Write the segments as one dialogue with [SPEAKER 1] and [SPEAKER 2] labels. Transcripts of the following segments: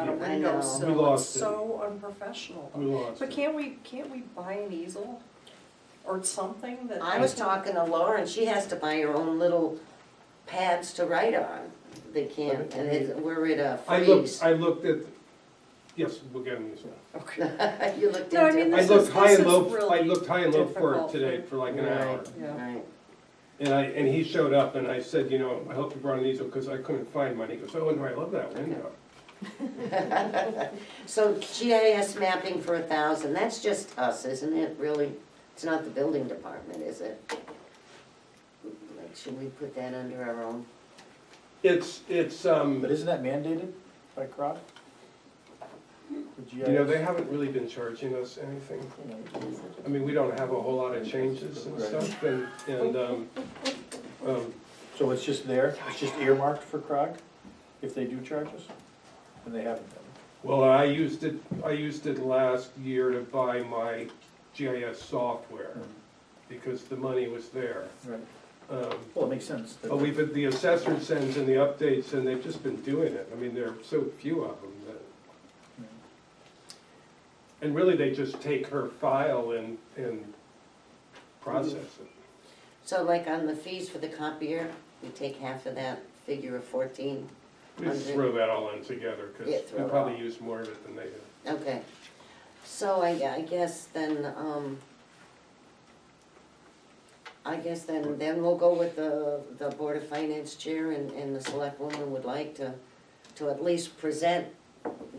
[SPEAKER 1] I know,
[SPEAKER 2] know.
[SPEAKER 1] so
[SPEAKER 3] We lost
[SPEAKER 1] it's
[SPEAKER 3] it.
[SPEAKER 1] so unprofessional.
[SPEAKER 3] We lost
[SPEAKER 1] But
[SPEAKER 3] it.
[SPEAKER 1] can't we, can't we buy an easel or something that?
[SPEAKER 2] I was talking to Laura, and she has to buy her own little pads to write on. They can't, and it, we're at a
[SPEAKER 3] I looked,
[SPEAKER 2] freeze.
[SPEAKER 3] I looked at, yes, we'll get into this now.
[SPEAKER 1] Okay.
[SPEAKER 2] You looked
[SPEAKER 1] No, I mean,
[SPEAKER 2] into
[SPEAKER 3] I
[SPEAKER 1] This
[SPEAKER 2] it.
[SPEAKER 3] looked
[SPEAKER 1] is-
[SPEAKER 3] high and
[SPEAKER 1] this
[SPEAKER 3] low,
[SPEAKER 1] is
[SPEAKER 3] I
[SPEAKER 1] really
[SPEAKER 3] looked high and low for it
[SPEAKER 1] difficult
[SPEAKER 3] today
[SPEAKER 1] for-
[SPEAKER 3] for like an hour.
[SPEAKER 2] Right,
[SPEAKER 1] Yeah.
[SPEAKER 2] right.
[SPEAKER 3] And I, and he showed up and I said, you know, I hope you brought an easel because I couldn't find mine. He goes, oh, no, I love that window.
[SPEAKER 2] So GIS mapping for a thousand, that's just us, isn't it, really? It's not the building department, is it? Like, should we put that under our own?
[SPEAKER 3] It's, it's, um,
[SPEAKER 4] But isn't that mandated by CROG?
[SPEAKER 3] you know, they haven't really been charging us anything. I mean, we don't have a whole lot of changes and stuff and, and, um, um,
[SPEAKER 4] So it's just there, it's just earmarked for CROG, if they do charge us? And they haven't been.
[SPEAKER 3] well, I used it, I used it last year to buy my GIS software because the money was there.
[SPEAKER 4] Right.
[SPEAKER 3] Um,
[SPEAKER 4] Well, it makes sense. that-
[SPEAKER 3] But we've, been- the assessor sends in the updates, and they've just been doing it. I mean, there are so few of them that, and really, they just take her file and, and process it.
[SPEAKER 2] So like on the fees for the copier, we take half of that figure of fourteen?
[SPEAKER 3] We just throw that all in together,
[SPEAKER 2] Yeah,
[SPEAKER 3] because
[SPEAKER 2] throw
[SPEAKER 3] we
[SPEAKER 2] it
[SPEAKER 3] probably
[SPEAKER 2] all.
[SPEAKER 3] use more of it than they do.
[SPEAKER 2] Okay, so I, I guess then, um, I guess then, then we'll go with the, the Board of Finance Chair and, and the Select Woman would like to, to at least present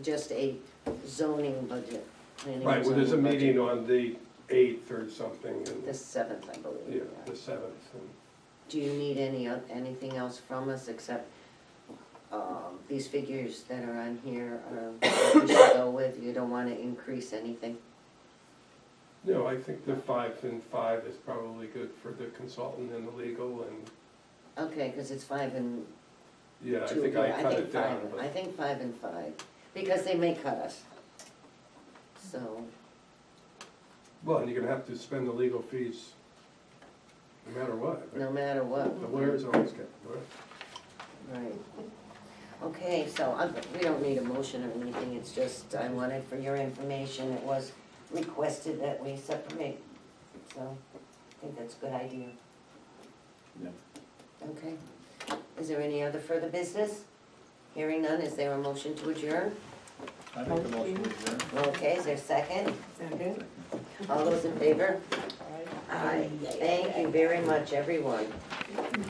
[SPEAKER 2] just a zoning budget. planning
[SPEAKER 3] Right, well, there's a
[SPEAKER 2] zoning budget.
[SPEAKER 3] meeting on the eighth or something,
[SPEAKER 2] The
[SPEAKER 3] and,
[SPEAKER 2] seventh, I believe,
[SPEAKER 3] yeah,
[SPEAKER 2] yeah.
[SPEAKER 3] the seventh. and-
[SPEAKER 2] Do you need any, o- anything else from us except, um, these figures that are on here are what we should go with? You don't wanna increase anything?
[SPEAKER 3] No, I think the five and five is probably good for the consultant and the legal, and,
[SPEAKER 2] Okay, cause it's five and
[SPEAKER 3] yeah, I
[SPEAKER 2] two
[SPEAKER 3] think
[SPEAKER 2] here.
[SPEAKER 3] I cut
[SPEAKER 2] think
[SPEAKER 3] it down.
[SPEAKER 2] five-
[SPEAKER 3] but-
[SPEAKER 2] I think five and five, because they may cut us. So,
[SPEAKER 3] Well, and you're gonna have to spend the legal fees no matter what.
[SPEAKER 2] no matter what.
[SPEAKER 3] The lawyers always get, the lawyer.
[SPEAKER 2] Right. Okay, so I, we don't need a motion or anything, it's just, I wanted for your information, it was requested that we separate. So, I think that's a good idea.
[SPEAKER 4] Yeah.
[SPEAKER 2] Okay, is there any other further business? Hearing none, is there a motion to adjourn?
[SPEAKER 4] I make a motion to adjourn.
[SPEAKER 2] Okay, is there a second? All those in favor? Aye. Thank you very much, everyone.